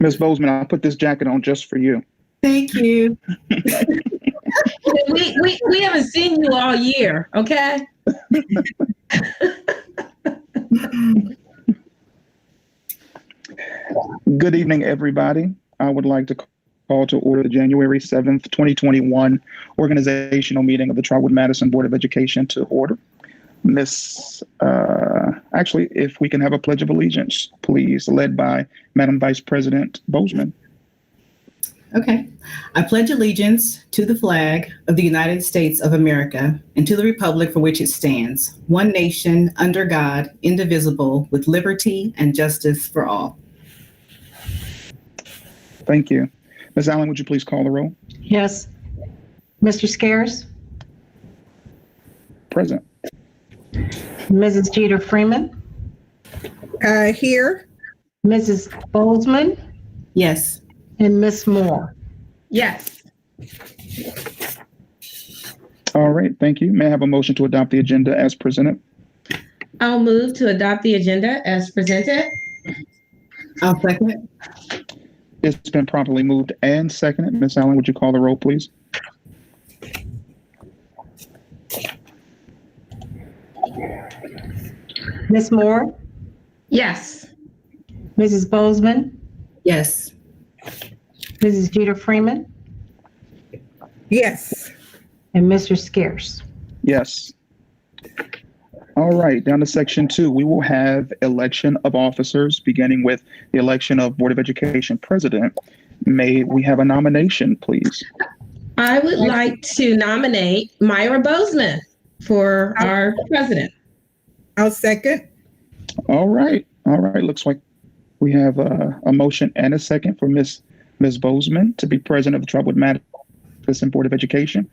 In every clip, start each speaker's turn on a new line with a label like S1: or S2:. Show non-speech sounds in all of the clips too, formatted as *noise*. S1: Ms. Bozeman, I put this jacket on just for you.
S2: Thank you.
S3: *laughs* We, we, we haven't seen you all year, okay?
S1: Good evening, everybody. I would like to call to order the January 7th, 2021 organizational meeting of the Trotwood Madison Board of Education to order. Miss, uh, actually, if we can have a pledge of allegiance, please, led by Madam Vice President Bozeman.
S2: Okay. I pledge allegiance to the flag of the United States of America and to the republic for which it stands, one nation, under God, indivisible, with liberty and justice for all.
S1: Thank you. Ms. Allen, would you please call the roll?
S4: Yes. Mr. Scares?
S1: Present.
S4: Mrs. Jeter Freeman?
S5: Uh, here,
S4: Mrs. Bozeman?
S2: Yes.
S4: And Miss Moore?
S3: Yes.
S1: All right, thank you. May I have a motion to adopt the agenda as presented?
S3: I'll move to adopt the agenda as presented.
S2: I'll second.
S1: It's been properly moved and seconded. Ms. Allen, would you call the roll, please?
S4: Miss Moore?
S3: Yes.
S4: Mrs. Bozeman?
S2: Yes.
S4: Mrs. Jeter Freeman?
S5: yes.
S4: And Mr. Scares?
S1: Yes. All right, down to section two, we will have election of officers, beginning with the election of Board of Education President. May we have a nomination, please?
S3: I would like to nominate Myra Bozeman for our president.
S5: I'll second.
S1: All right, all right, looks like we have uh, a, a motion and a second for Miss Ms. Bozeman to be president of the Trotwood Madison Board of Education.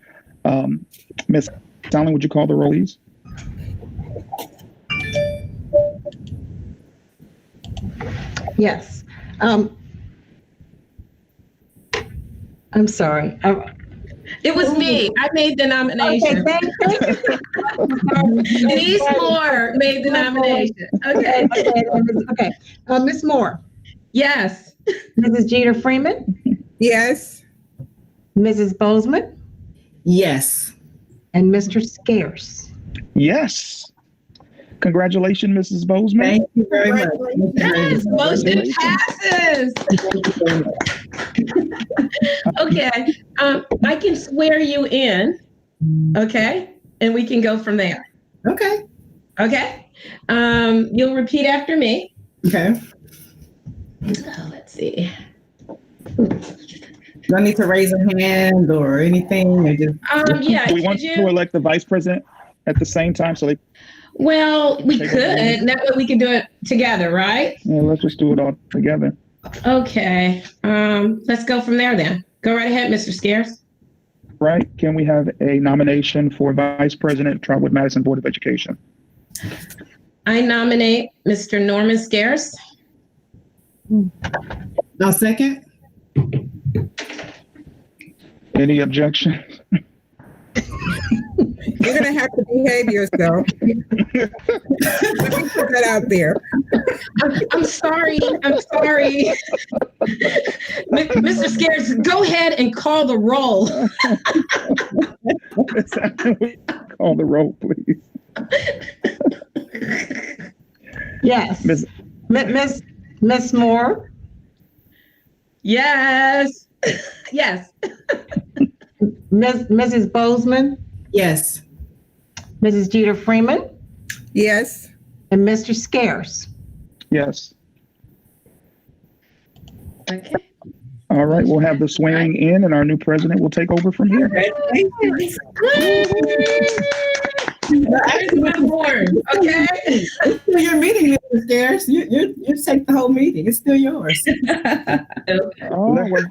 S1: Um, Ms. Allen, would you call the roll, please?
S4: Yes. Um, I'm sorry. I-
S3: It was me. I made the
S4: Okay,
S3: nomination.
S4: thank you.
S3: Denise Moore made the nomination. Okay.
S4: Okay, okay, okay. Uh, Miss Moore?
S3: Yes.
S4: Mrs. Jeter Freeman?
S5: Yes,
S4: Mrs. Bozeman?
S2: Yes.
S4: And Mr. Scares?
S1: Yes. Congratulations, Mrs. Bozeman.
S2: Thank you very much.
S3: Yes. Motion passes. Okay. Um, I can swear you in. Okay. And we can go from there.
S2: Okay.
S3: Okay. Um, you'll repeat after me.
S2: Okay.
S3: Oh, let's see.
S2: Do I need to raise a hand or anything? Or just,
S3: Um, yeah.
S1: we want
S3: could you-
S1: to elect the vice president at the same time, so they,
S3: Well, we
S1: Take
S3: could.
S1: it away.
S3: That way we could do it together, right?
S1: yeah, let's just do it all together.
S3: Okay. Um, let's go from there then. Go right ahead, Mr. Scares.
S1: Right? Can we have a nomination for vice president, Trotwood Madison Board of Education?
S3: I nominate Mr. Norman Scares.
S2: I'll second.
S1: Any objection? *laughs*
S5: you're gonna have to behave yourself. Let me put that out there.
S3: I'm, *laughs* I'm sorry. I'm sorry. *laughs* M- Mr. Scares, go ahead and call the roll.
S1: Call the roll, please.
S4: Yes.
S1: Miss-
S4: Mi- Miss, Miss Moore?
S3: Yes. *laughs* Yes.
S4: Miss, Mrs. Bozeman?
S2: Yes.
S4: Mrs. Jeter Freeman
S5: Yes,
S4: and Mr. Scares.
S1: Yes.
S3: Okay.
S1: All right, we'll have the swearing in and our new president will take over from here.
S3: There's my board. Okay.
S2: It's still your meeting, Mr. Scares. You, you, you take the whole meeting. It's still yours.
S1: Oh, well,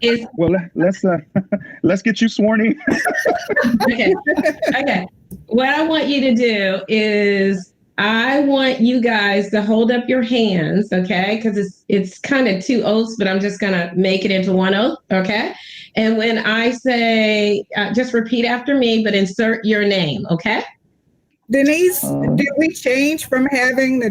S3: It's
S1: well, let's, uh, *laughs* let's get you sworn in.
S3: okay. Okay. What I want you to do is I want you guys to hold up your hands, okay? Because it's it's kind of two oaths, but I'm just gonna make it into one oath, okay? And when I say, uh, just repeat after me, but insert your name, okay?
S5: Denise,
S1: Uh.
S5: did we change from having the